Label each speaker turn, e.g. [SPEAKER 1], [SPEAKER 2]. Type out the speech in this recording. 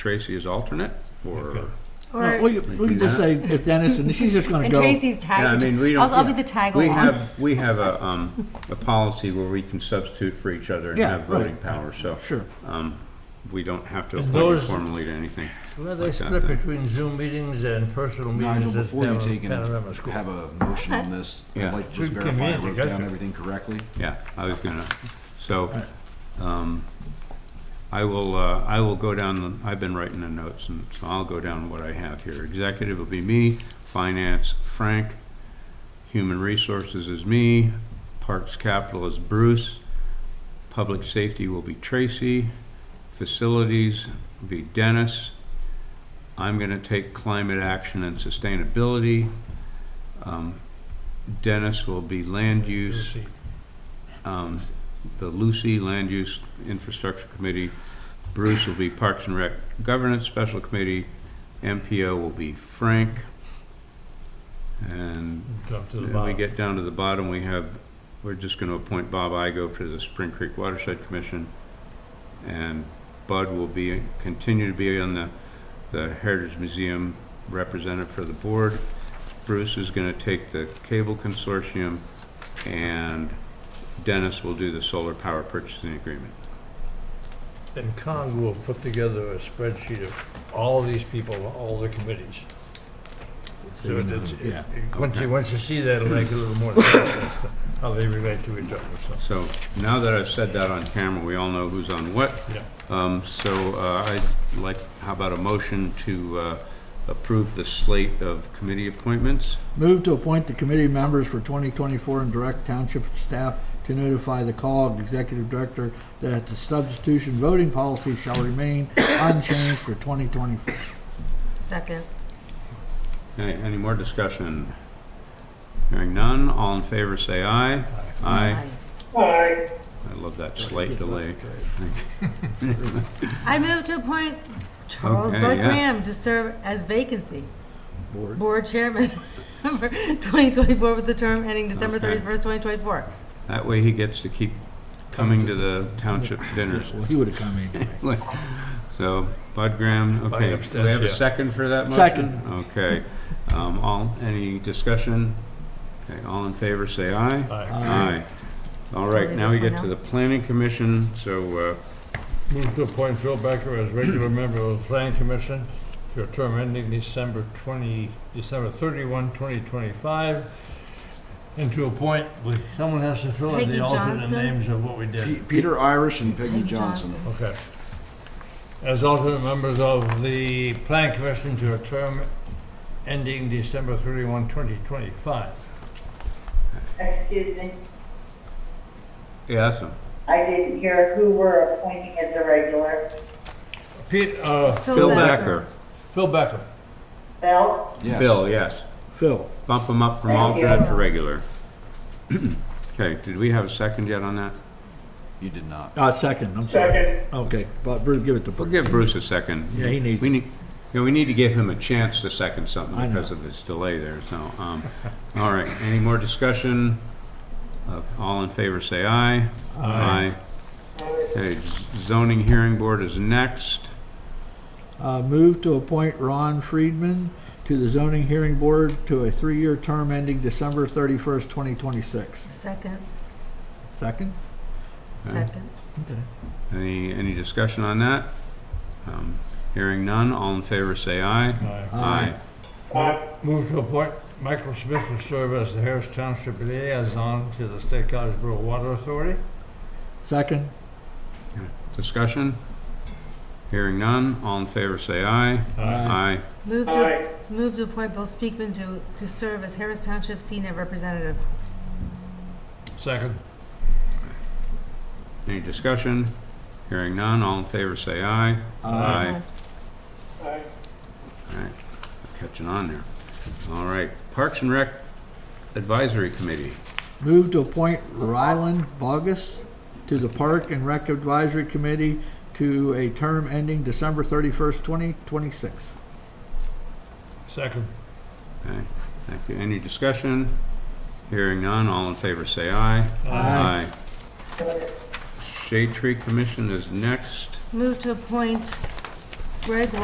[SPEAKER 1] Tracy as alternate, or?
[SPEAKER 2] Well,
[SPEAKER 3] Or,
[SPEAKER 2] We we can just say if Dennis, and she's just gonna
[SPEAKER 3] and
[SPEAKER 2] go.
[SPEAKER 3] Tracy's
[SPEAKER 1] Yeah, I
[SPEAKER 3] tag,
[SPEAKER 1] mean, we don't-
[SPEAKER 3] I'll, I'll be
[SPEAKER 1] yeah.
[SPEAKER 3] the tag
[SPEAKER 1] We
[SPEAKER 3] along.
[SPEAKER 1] have, we have a, um, a policy where we can substitute for each other and
[SPEAKER 2] Yeah,
[SPEAKER 1] have voting
[SPEAKER 2] right.
[SPEAKER 1] power, so.
[SPEAKER 2] Sure.
[SPEAKER 1] Um, we don't have to
[SPEAKER 4] And
[SPEAKER 1] appoint you
[SPEAKER 4] those-
[SPEAKER 1] formally to anything.
[SPEAKER 4] Well,
[SPEAKER 1] Like
[SPEAKER 4] they
[SPEAKER 1] that,
[SPEAKER 4] split
[SPEAKER 1] then.
[SPEAKER 4] between Zoom meetings and personal
[SPEAKER 5] Nigel,
[SPEAKER 4] meetings at
[SPEAKER 5] before you take
[SPEAKER 4] Pan-
[SPEAKER 5] and
[SPEAKER 4] Panorama School.
[SPEAKER 5] have a motion on this,
[SPEAKER 1] Yeah.
[SPEAKER 5] I'd like to just
[SPEAKER 4] We can
[SPEAKER 5] verify I
[SPEAKER 4] manage it,
[SPEAKER 5] wrote
[SPEAKER 4] gotcha.
[SPEAKER 5] down everything correctly.
[SPEAKER 1] Yeah, I was gonna, so,
[SPEAKER 2] Right.
[SPEAKER 1] um, I will, uh, I will go down, the- I've been writing the notes, and so I'll go down what I have here. Executive will be me, finance, Frank, human resources is me, parks capital is Bruce, public safety will be Tracy, facilities will be Dennis. I'm gonna take climate action and sustainability. Um, Dennis will be land use
[SPEAKER 4] Lucy.
[SPEAKER 1] um, the Lucy Land Use Infrastructure Committee. Bruce will be Parks and Rec Governance Special Committee. MPO will be Frank. And
[SPEAKER 4] Drop to the
[SPEAKER 1] when we
[SPEAKER 4] bottom.
[SPEAKER 1] get down to the bottom, we have, we're just gonna appoint Bob Igo for the Spring Creek Watershed Commission. And Bud will be, continue to be on the, the Heritage Museum representative for the board. Bruce is gonna take the Cable Consortium, and Dennis will do the solar power purchasing agreement.
[SPEAKER 4] And Kong will put together a spreadsheet of all these people, all the committees. So
[SPEAKER 2] you know,
[SPEAKER 4] it's, it-
[SPEAKER 2] yeah.
[SPEAKER 4] it- once
[SPEAKER 1] Okay.
[SPEAKER 4] you, once you see that, it'll make a little more sense as to how they relate to each other, so.
[SPEAKER 1] So now that I've said that on camera, we all know who's on what.
[SPEAKER 4] Yeah.
[SPEAKER 1] Um, So uh, I'd like, how about a motion to uh, approve the slate of committee appointments?
[SPEAKER 2] Move to appoint the committee members for 2024 and direct township staff to notify the call of executive director that the substitution voting policy shall remain unchanged for 2024.
[SPEAKER 3] Second.
[SPEAKER 1] Any, any more discussion? Hearing none, all in favor say aye. Aye. I love that slate delay.
[SPEAKER 3] I move to appoint Charles
[SPEAKER 1] Okay,
[SPEAKER 3] Bud
[SPEAKER 1] yeah.
[SPEAKER 3] Graham to serve as vacancy,
[SPEAKER 2] Board.
[SPEAKER 3] board chairman for 2024 with the term ending December
[SPEAKER 1] Okay.
[SPEAKER 3] 31st, 2024.
[SPEAKER 1] That way he gets to keep coming to the township dinners.
[SPEAKER 2] Well, he would have come anyway.
[SPEAKER 1] So Bud Graham,
[SPEAKER 4] By
[SPEAKER 1] okay, do we have a
[SPEAKER 4] abstention.
[SPEAKER 1] second for that motion?
[SPEAKER 2] Second.
[SPEAKER 1] Okay, um, all, any discussion? Okay, all in favor, say aye.
[SPEAKER 4] Aye.
[SPEAKER 1] Aye. All right,
[SPEAKER 3] Only
[SPEAKER 1] now we
[SPEAKER 3] this one
[SPEAKER 1] get to
[SPEAKER 3] now?
[SPEAKER 1] the planning commission, so, uh,
[SPEAKER 4] Move to appoint Phil Becker as regular member of the planning commission to a term ending December twenty, December thirty-one, twenty twenty-five. And to appoint, we- someone has to fill in
[SPEAKER 3] Peggy
[SPEAKER 4] the alternate
[SPEAKER 3] Johnson?
[SPEAKER 4] names of what we
[SPEAKER 5] P-
[SPEAKER 4] did.
[SPEAKER 5] Peter Irish and Peggy
[SPEAKER 3] Peggy
[SPEAKER 5] Johnson.
[SPEAKER 3] Johnson.
[SPEAKER 4] Okay. As alternate members of the planning commission to a term ending December thirty-one, twenty twenty-five.
[SPEAKER 6] Excuse me,
[SPEAKER 1] uh, yeah, so,
[SPEAKER 6] I didn't hear who we're appointing as a regular.
[SPEAKER 4] Pete, uh,
[SPEAKER 3] Phil
[SPEAKER 1] Phil
[SPEAKER 3] Becker.
[SPEAKER 1] Becker.
[SPEAKER 4] Phil Becker.
[SPEAKER 6] Bill?
[SPEAKER 5] Yes.
[SPEAKER 1] Phil, yes.
[SPEAKER 2] Uh, Phil,
[SPEAKER 1] Bump him up from
[SPEAKER 6] Thank you.
[SPEAKER 1] alternate to regular. Okay, did we have a second yet on that?
[SPEAKER 5] You did not.
[SPEAKER 2] uh, second, I'm sorry. Second. Okay, but Bruce, give it to
[SPEAKER 1] We'll
[SPEAKER 2] Bruce.
[SPEAKER 1] give Bruce a second.
[SPEAKER 2] Yeah, he needs
[SPEAKER 1] We
[SPEAKER 2] it.
[SPEAKER 1] need, yeah, we need to give him a chance to second something
[SPEAKER 2] I know.
[SPEAKER 1] because of his delay there, so, um, all right, any more discussion? Uh, All in favor, say aye. Aye. Okay, zoning hearing board is next.
[SPEAKER 2] Uh, move to appoint Ron Friedman to the zoning hearing board to a three-year term ending December 31st, 2026.
[SPEAKER 3] Second,
[SPEAKER 2] Second?
[SPEAKER 1] Okay.
[SPEAKER 3] second.
[SPEAKER 1] Any, any discussion on that? Um, Hearing none, all in favor, say aye.
[SPEAKER 2] Aye.
[SPEAKER 4] Move to appoint Michael Smith to serve as the Harris Township liaison to the State College Water Authority.
[SPEAKER 2] Second?
[SPEAKER 1] Discussion? Hearing none, all in favor, say aye. Aye.
[SPEAKER 3] Move to, move to appoint Bill Speakman to, to serve as Harris Township Senior Representative.
[SPEAKER 4] Second.
[SPEAKER 1] Any discussion? Hearing none, all in favor, say aye. Aye. All right, catching on there. All right, Parks and Rec Advisory Committee.
[SPEAKER 2] Move to appoint Ryland Bogus to the Park and Rec Advisory Committee to a term ending December 31st, 2026.
[SPEAKER 4] Second.
[SPEAKER 1] Okay, thank you. Any discussion? Hearing none, all in favor, say aye.
[SPEAKER 2] Aye.
[SPEAKER 1] Aye. Shade Tree Commission is next.
[SPEAKER 3] Move to appoint Greg